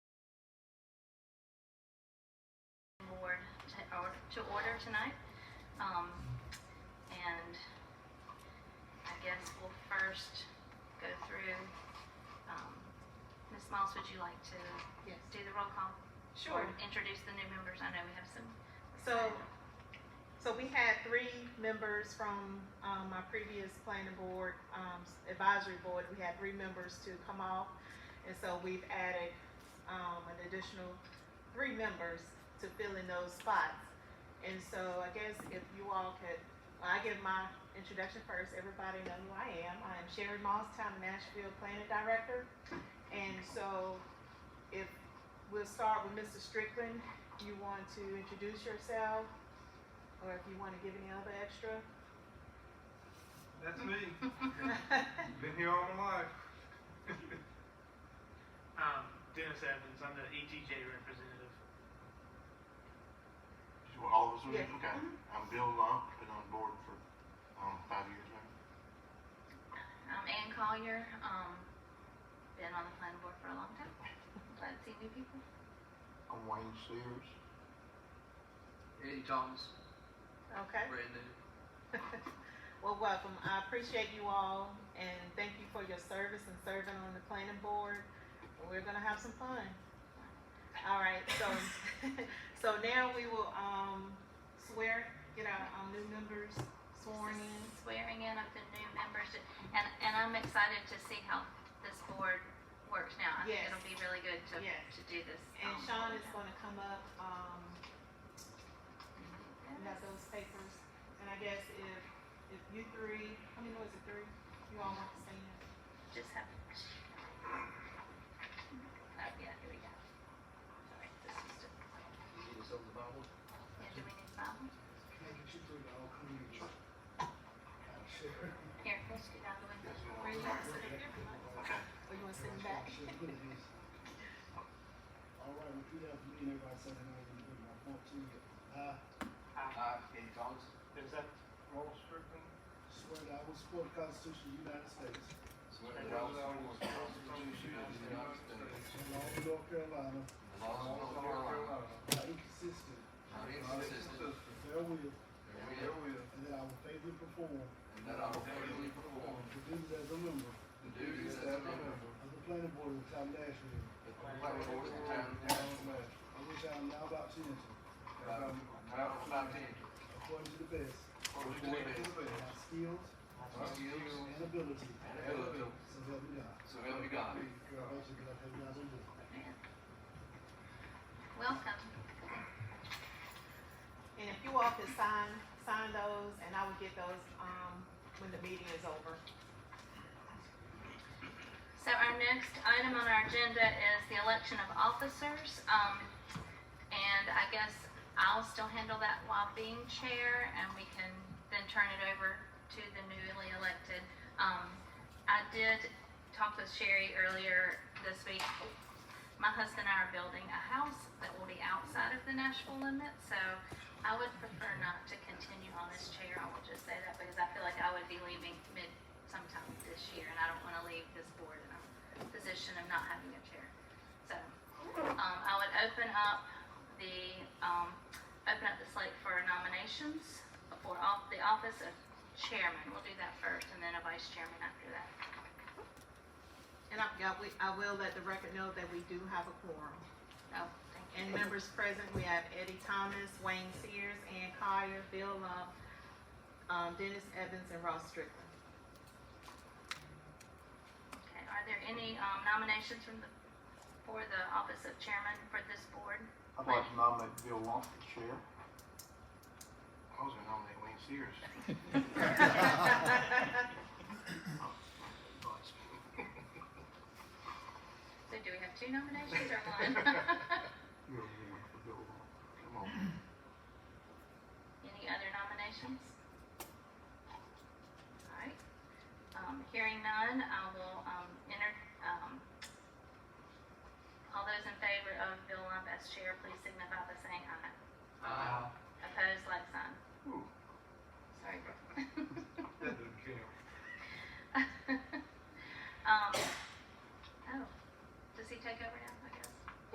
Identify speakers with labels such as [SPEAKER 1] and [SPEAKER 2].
[SPEAKER 1] to order tonight. Um, and I guess we'll first go through, um, Ms. Moss, would you like to
[SPEAKER 2] Yes.
[SPEAKER 1] do the roll call?
[SPEAKER 2] Sure.
[SPEAKER 1] Or Introduce the new members. I know we have some.
[SPEAKER 2] So, so we had three members from, um, my previous planning board, um, advisory board, we had three members to come off. And so we've added, um, an additional three members to fill in those spots. And so I guess if you all could, I give my introduction first, everybody know who I am. I am Sherry Moss, Town of Nashville Planning Director. And so if, we'll start with Mr. Strickland, you want to introduce yourself, or if you want to give any other extra.
[SPEAKER 3] That's me.
[SPEAKER 2] okay.
[SPEAKER 3] Been here all my life.
[SPEAKER 4] Um, Dennis Evans, I'm the ETJ representative.
[SPEAKER 5] You were always with me?
[SPEAKER 2] Yeah.
[SPEAKER 5] Okay. I'm Bill Long, been on board for, um, five years now.
[SPEAKER 1] I'm Ann Collier, um, been on the planning board for a long time. Glad to see new people.
[SPEAKER 5] I'm Wayne Sears.
[SPEAKER 6] Eddie Thomas, brand new.
[SPEAKER 2] well, welcome. I appreciate you all, and thank you for your service and serving on the planning board. We're gonna have some fun. All right. So, so now we will um, swear, get our um, new members sworn in.
[SPEAKER 1] Swearing in of the new members, and, and I'm excited to see how this board works now. I think
[SPEAKER 2] Yes.
[SPEAKER 1] it'll be really good to,
[SPEAKER 2] Yes.
[SPEAKER 1] to do this.
[SPEAKER 2] And
[SPEAKER 1] um,
[SPEAKER 2] Sean is gonna come up. Um, You got those papers, and I guess if, if you three, I mean, was it three? You all want to say it?
[SPEAKER 1] Just have. Oh, yeah, here we go. Sorry, this is just-
[SPEAKER 6] You need us over the Bible?
[SPEAKER 1] yeah, do we need Bible? Here, let's get out of the window. Where you at?
[SPEAKER 5] Okay.
[SPEAKER 2] Or you want to send it back?
[SPEAKER 7] All right, repeat after me, and everybody say their name, and put my phone to you. I,
[SPEAKER 4] Uh,
[SPEAKER 6] I, Eddie Thomas,
[SPEAKER 4] Is that Roll Strickland?
[SPEAKER 7] swear that I will support the Constitution of the United States,
[SPEAKER 6] swear
[SPEAKER 3] And
[SPEAKER 6] to
[SPEAKER 3] those
[SPEAKER 6] God,
[SPEAKER 3] that will
[SPEAKER 6] the Constitution of the United States,
[SPEAKER 7] and the law of North Carolina,
[SPEAKER 6] the laws of North Carolina,
[SPEAKER 7] are inconsistent
[SPEAKER 6] are inconsistent
[SPEAKER 7] with their will,
[SPEAKER 6] with their will,
[SPEAKER 7] and that I will faithfully perform
[SPEAKER 6] and that I will faithfully perform
[SPEAKER 7] the duties as a member
[SPEAKER 6] the duties as a member
[SPEAKER 7] of the planning board of the town of Nashville,
[SPEAKER 6] of the planning board of the town of Nashville,
[SPEAKER 7] on which I am now about to enter,
[SPEAKER 6] that I will proudly maintain,
[SPEAKER 7] according to the best
[SPEAKER 6] according to the best
[SPEAKER 7] of my skills
[SPEAKER 6] of my skills
[SPEAKER 7] and ability,
[SPEAKER 6] and ability,
[SPEAKER 7] so help me God.
[SPEAKER 6] so help me God.
[SPEAKER 7] Congratulations, God, have you guys on this.
[SPEAKER 1] Welcome.
[SPEAKER 2] And if you all could sign, sign those, and I will get those, um, when the meeting is over.
[SPEAKER 1] So our next item on our agenda is the election of officers. Um, and I guess I'll still handle that while being chair and we can then turn it over to the newly elected. Um, I did talk with Sherry earlier this week. My husband and I are building a house that will be outside of the Nashville limit, so I would prefer not to continue on as chair. I will just say that because I feel like I would be leaving mid sometime this year, and I don't want to leave this board in a position of not having a chair. So, um, I would open up the, um, open up the slate for nominations for off, the office of chairman. We'll do that first, and then a vice chairman after that.
[SPEAKER 2] And I forgot, we, I will let the record know that we do have a quorum.
[SPEAKER 1] Oh, thank you.
[SPEAKER 2] And members present, we have Eddie Thomas, Wayne Sears, Ann Collier, Bill Love, um, Dennis Evans, and Ross Strickland.
[SPEAKER 1] Okay, are there any, um, nominations from the, for the office of chairman for this board?
[SPEAKER 8] I'd like to nominate Bill Wong for chair.
[SPEAKER 5] I was gonna nominate Wayne Sears.
[SPEAKER 1] So do we have two nominations or one?
[SPEAKER 8] You're one for Bill Wong.
[SPEAKER 5] Come on.
[SPEAKER 1] Any other nominations? All right, um, hearing none, I will, um, enter, um, all those in favor of Bill Lump as chair, please signify by saying aye.
[SPEAKER 6] I,
[SPEAKER 1] Opposed, like sign.
[SPEAKER 5] Ooh.
[SPEAKER 1] Sorry, Brooke. Um, oh,